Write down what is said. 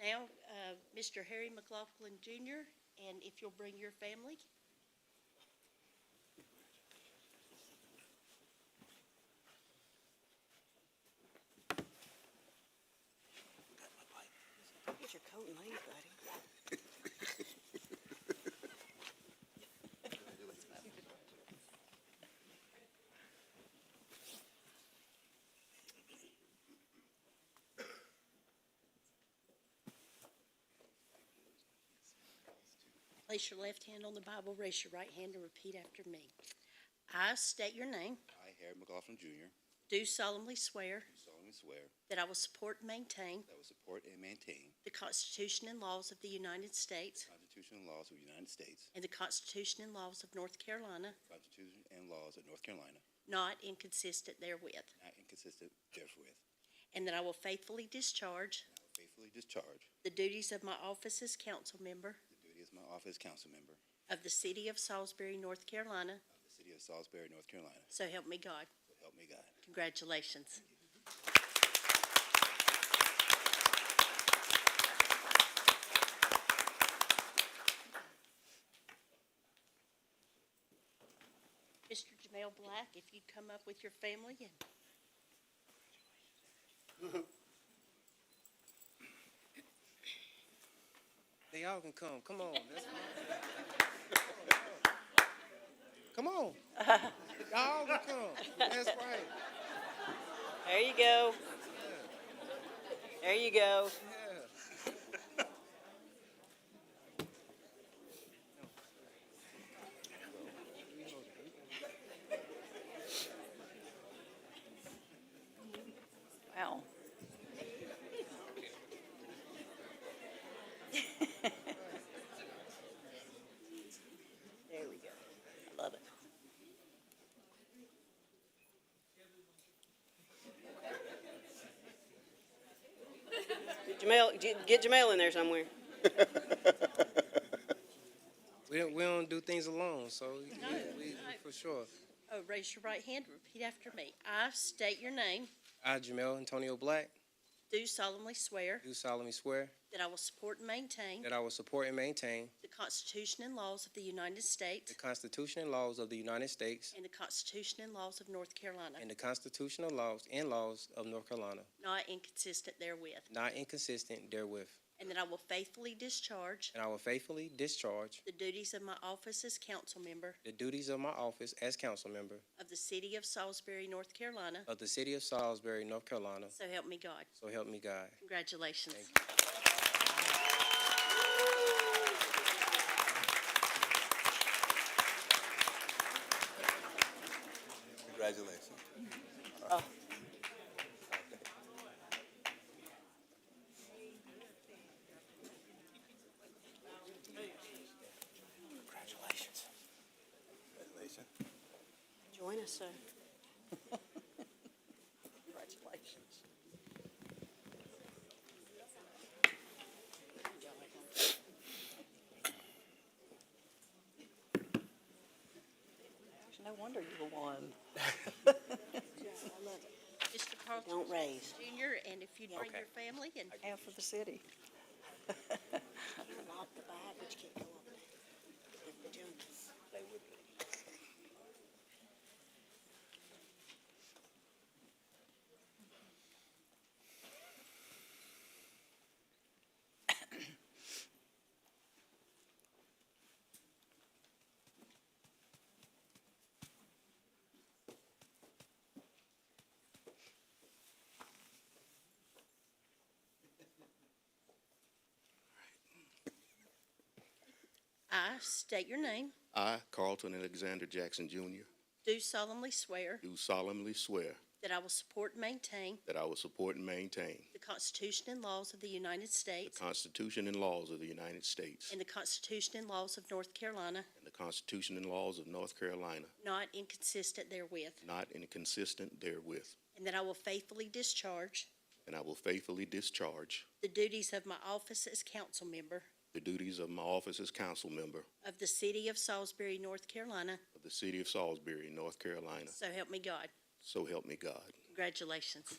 Now, uh, Mr. Harry McLaughlin Jr., and if you'll bring your family. Get your coat and leave, buddy. Place your left hand on the Bible, raise your right hand, and repeat after me. I state your name, I, Harry McLaughlin Jr., do solemnly swear do solemnly swear that I will support and maintain that I will support and maintain the Constitution and laws of the United States the Constitution and laws of the United States, and the Constitution and laws of North Carolina, the Constitution and laws of North Carolina, not inconsistent therewith, not inconsistent therewith, and that I will faithfully discharge and I will faithfully discharge the duties of my office as council member the duty of my office council member of the city of Salisbury, North Carolina, of the city of Salisbury, North Carolina. so help me God. So help me God. Congratulations. Mr. Jamel Black, if you'd come up with your family and They all can come. Come on. That's come on. Y'all can come. That's right. There you go. There you go. Wow. There we go. I love it. Jamel, j- get Jamel in there somewhere. We don't, we don't do things alone, so we, we, for sure. Oh, raise your right hand, repeat after me. I state your name, I, Jamel Antonio Black, do solemnly swear do solemnly swear that I will support and maintain that I will support and maintain the Constitution and laws of the United the States Constitution and laws of the United States and the Constitution and laws of North Carolina, and the constitutional laws and laws of North Carolina, not inconsistent therewith, not inconsistent therewith, and that I will faithfully discharge and I will faithfully discharge the duties of my office as council member the duties of my office as council member of the city of Salisbury, North Carolina. of the city of Salisbury, North Carolina. So help me God. So help me God. Congratulations. Thank Congratulations. Congratulations. Congratulations. Join us, sir. Congratulations. No wonder you won. Mr. Carlton Don't raise. Jr., and if you'd bring Okay. your family and Half of the city. Lock the bag, but you can't go up there. The junkies. They would be. I state your name, I, Carlton Alexander Jackson Jr., do solemnly swear do solemnly swear that I will support and maintain that I will support and maintain the Constitution and laws of the United the States Constitution and laws of the United States and the Constitution and laws of North Carolina, and the Constitution and laws of North Carolina, not inconsistent therewith, not inconsistent therewith, and that I will faithfully discharge and I will faithfully discharge the duties of my office as council member the duties of my office as council member of the city of Salisbury, North Carolina. of the city of Salisbury, North Carolina. So help me God. So help me God. Congratulations.